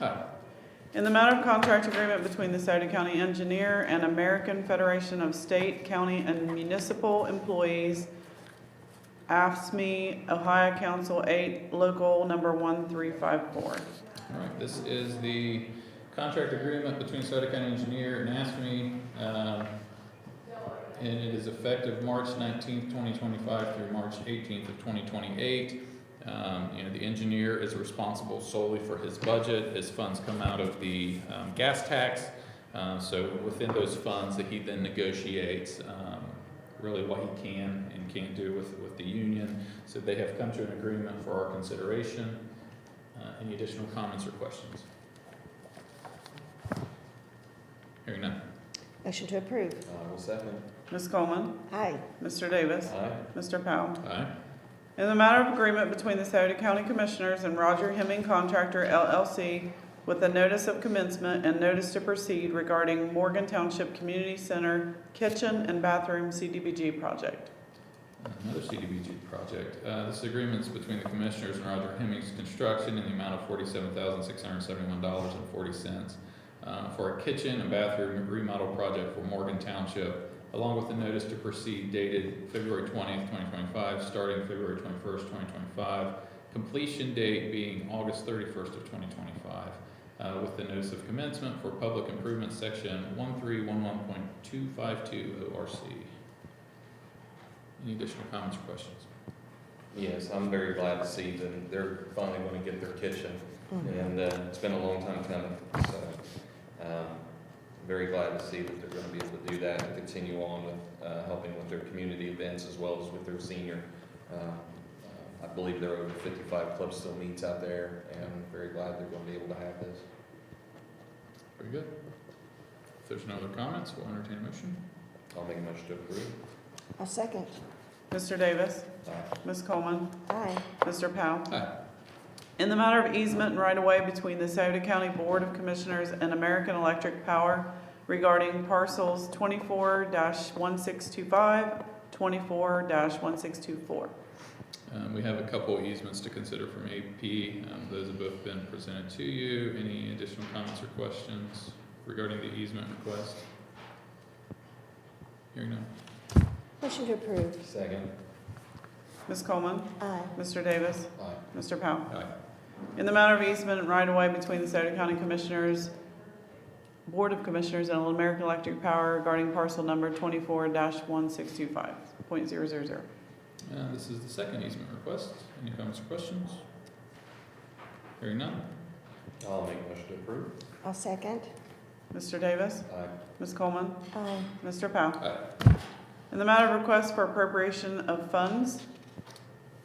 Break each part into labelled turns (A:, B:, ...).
A: Aye.
B: In the matter of contract agreement between the Sauter County Engineer and American Federation of State, County, and Municipal Employees, AFSME, E, Ohio Council 8, Local Number 1354.
A: All right, this is the contract agreement between Sauter County Engineer and ASME. um, And it is effective March nineteenth, twenty twenty-five through March eighteenth of twenty twenty-eight. Um, you know, the engineer is responsible solely for his budget. His funds come out of the, um, gas tax. Uh, so within those funds that he then negotiates, um, really what he can and can't do with, with the union. So they have come to an agreement for our consideration. Uh, Any additional comments or questions? Hearing none.
C: Motion to approve.
D: I will second.
B: Ms. Coleman.
C: Aye.
B: Mr. Davis.
D: Aye.
B: Mr. Powell.
A: Aye.
B: In the matter of agreement between the Sauter County Commissioners and Roger Hemming Contractor LLC with a notice of commencement and notice to proceed regarding Morgan Township Community Center Kitchen and Bathroom CDBG project.
A: Another CDBG project. Uh, This agreement's between the Commissioners and Roger Hemmings Construction in the amount of forty-seven thousand, six hundred and seventy-one dollars and forty cents uh, for a kitchen and bathroom remodel project for Morgan Township, along with the notice to proceed dated February twentieth, twenty twenty-five, starting February twenty-first, twenty twenty-five, completion date being August thirty-first of twenty twenty-five, uh, with the notice of commencement for public improvement section one-three-one-one-point-two-five-two ORC. Any additional comments or questions?
D: Yes, I'm very glad to see that they're finally going to get their kitchen,
C: Hmm.
D: and uh, it's been a long time coming, so. um, Very glad to see that they're going to be able to do that and continue on with uh, helping with their community events as well as with their senior. um, I believe there are over 55 club still meets out there, and I'm very glad they're going to be able to have this.
A: Very good. If there's no other comments, we'll entertain a motion.
D: I'll make a motion to approve.
C: I'll second.
B: Mr. Davis.
D: Aye.
B: Ms. Coleman.
C: Aye.
B: Mr. Powell.
A: Aye.
B: In the matter of easement and right-of-way between the Sauter County Board of Commissioners and American Electric Power regarding parcels twenty-four 1625 24 one-six-two-four.
A: Um, we have a couple easements to consider from AP. Um, those have both been presented to you. Any additional comments or questions regarding the easement request? Hearing none.
C: Motion to approve.
D: Second.
B: Ms. Coleman.
C: Aye.
B: Mr. Davis.
D: Aye.
B: Mr. Powell.
A: Aye.
B: In the matter of easement and right-of-way between the Sauter County Commissioners, Board of Commissioners and American Electric Power regarding parcel number twenty-four one-six-two-five point zero zero zero.
A: Uh, this is the second easement request. Any comments or questions? Hearing none.
D: I'll make a motion to approve.
C: I'll second.
B: Mr. Davis.
D: Aye.
B: Ms. Coleman.
C: Aye.
B: Mr. Powell.
A: Aye.
B: In the matter of request for appropriation of funds,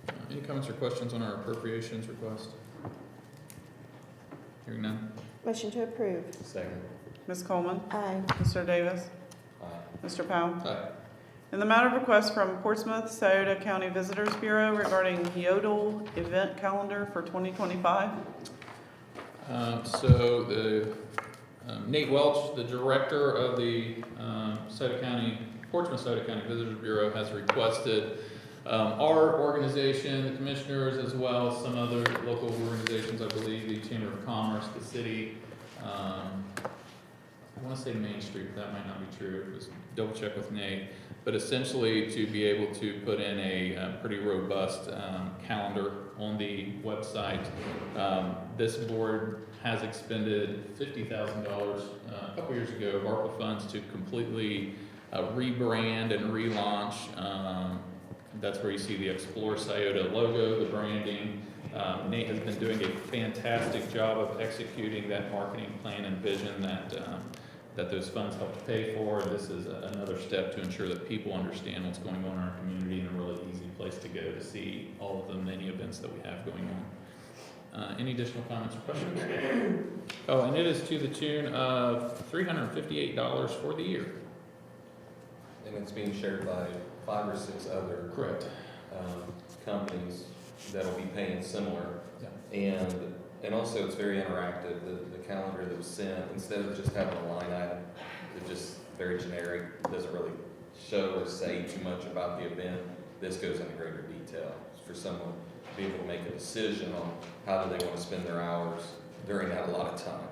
A: Uh, Any comments or questions on our appropriations request? Hearing none.
C: Motion to approve.
D: Second.
B: Ms. Coleman,
C: Aye.
B: Mr. Davis,
D: Aye.
B: Mr. Powell.
A: Aye.
B: In the matter of request from Portsmouth Sauter County Visitors Bureau regarding Yodel event calendar for 2025.
A: Um, So the, um, Nate Welch, the director of the um, Sauter County, Portsmouth Sauter County Visitors Bureau has requested um, our organization, the commissioners, as well as some other local organizations, I believe, the Chamber of Commerce, the city. um, I want to say Main Street, but that might not be true. It was double check with Nate. But essentially to be able to put in a uh, pretty robust um, calendar on the website um, This board has expended fifty thousand dollars uh, a couple years ago of ARPA funds to completely uh, rebrand and relaunch. Um, That's where you see the Explore Sciota logo, the branding. Um, Nate has been doing a fantastic job of executing that marketing plan and vision that, um, that those funds helped pay for. This is a- another step to ensure that people understand what's going on in our community and a really easy place to go to see all of the many events that we have going on. Uh, Any additional comments or questions? Oh, and it is to the tune of three hundred and fifty-eight dollars for the year.
D: And it's being shared by five or six other
A: Correct.
D: um, companies that'll be paying similar.
A: Yeah.
D: And, and also it's very interactive, the, the calendar that was sent, instead of just having a line item, it's just very generic, doesn't really show or say too much about the event. This goes into greater detail for someone to be able to make a decision on how do they want to spend their hours, during that a lot of time.